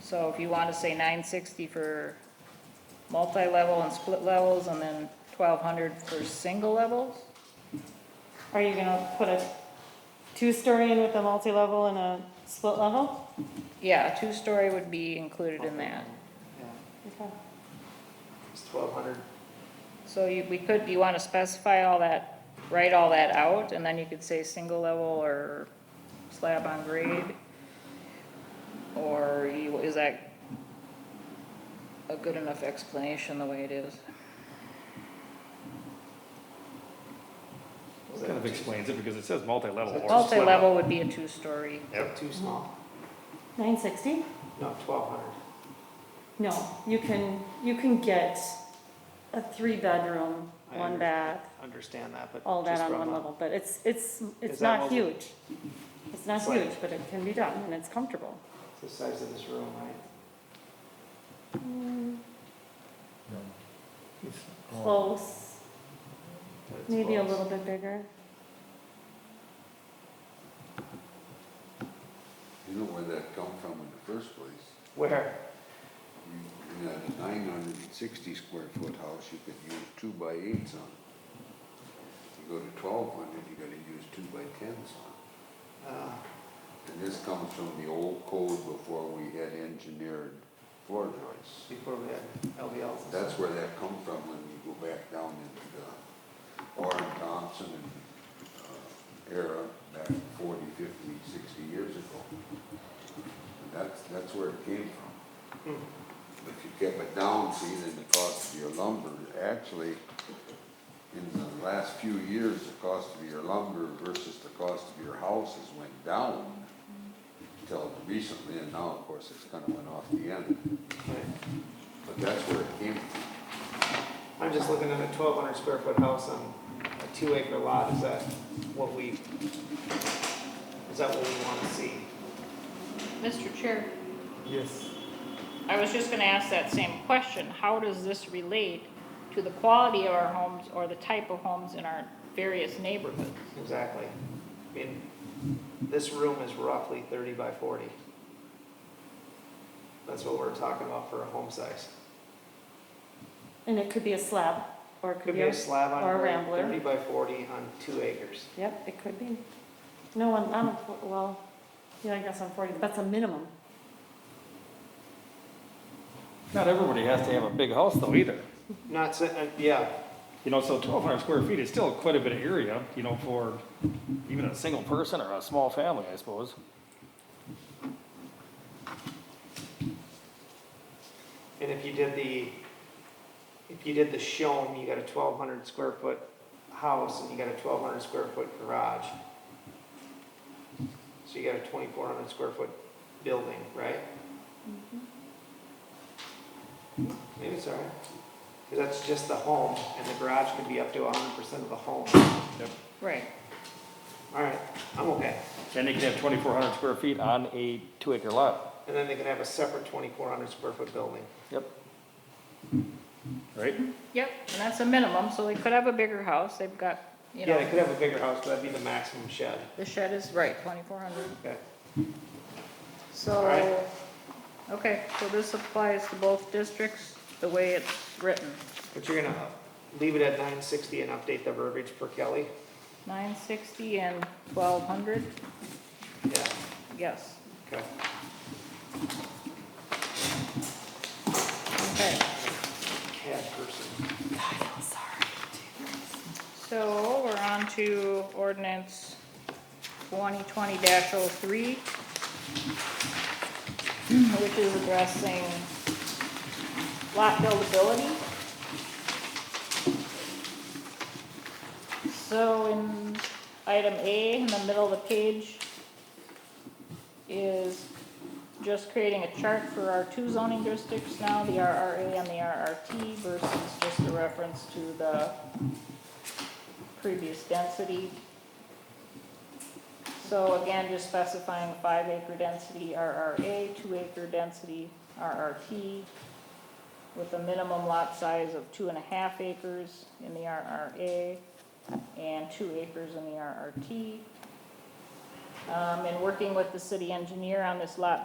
So if you want to say nine sixty for multi-level and split levels, and then twelve hundred for single levels? Are you gonna put a two-story in with a multi-level and a split level? Yeah, a two-story would be included in that. Yeah, Okay. it's twelve hundred. So you, we could, you want to specify all that, write all that out, and then you could say single level or slab on grade? Or you, is that a good enough explanation the way it is? Kind of explains it because it says multi-level or split. Multi-level would be a two-story. Yep. Too small. Nine sixty? No, twelve hundred. No, you can, you can get a three-bedroom, I one under- bath, Understand that, but. all that just on from one a- level, but it's, it's, Is it's that not multi- huge. It's not It's like- huge, but it can be done, and it's comfortable. it's The size of this room, right? Mm. Close, But it's maybe a close. little bit bigger. You know where that come from in the first place? Where? You, you had a nine hundred and sixty square foot house, you could use two by eights on. You go to twelve hundred, you gotta use two by tens on. Uh, And this comes from the old code before we had engineered floor joists. Before we had LVLs. and That's stuff. where that come from when you go back down into the Warren Thompson and, uh, era back 40, 50, 60 years ago. And that's, that's where it came from. Hmm. If you kept it down, see, then the cost of your lumber, actually, in the last few years, the cost of your lumber versus the cost of your house has went down until recently, and now, of course, it's kinda went off the end, Right. but that's where it came from. I'm just looking at a twelve hundred square foot house on a two acre lot, is that what we, is that what we wanna see? Mr. Chair, Yes. I was just gonna ask that same question. How does this relate to the quality of our homes or the type of homes in our various neighborhoods? Exactly. I mean, this room is roughly thirty by forty. That's what we're talking about for a home size. And it could be a slab, or it Could be a slab on or a grade, rambler. thirty by forty on two acres. Yep, it could be. No, one. I'm, well, yeah, I guess I'm forty, that's a minimum. Not everybody has to have a big house though either. Not, sa- uh, yeah, You know, so twelve hundred square feet is still quite a bit of area, you know, for even a single person or a small family, I suppose. and if you did the, if you did the shown, you got a twelve hundred square foot house and you got a twelve hundred square foot garage. So you got a twenty-four hundred square foot building, right? Maybe it's all right. 'Cause that's just the home and the garage could be up to hundred percent of the home. Right. All right, I'm okay. And they can have twenty-four hundred square feet on a two acre lot. And then they can have a separate twenty-four hundred square foot building. Yep. Right? Yep, and that's a minimum, so they could have a bigger house. They've got, you Yeah, they know, could have a bigger house, but that'd be the maximum shed. the shed is right, twenty-four hundred. Okay. Alright. So, okay, so this applies to both districts, the way it's written. But you're gonna leave it at nine sixty and update the verbiage for Kelly? Nine sixty and twelve hundred, Yeah, yes, okay. okay. Cat person. So we're on to ordinance twenty twenty oh 3 which is addressing lot buildability. So in item A, in the middle of the page, is just creating a chart for our two zoning districts now, the RRA and the RRT versus just a reference to the previous density. So again, just specifying five acre density RRA, two acre density RRT, with a minimum lot size of two and a half acres in the RRA and two acres in the RRT. Um, and working with the city engineer on this lot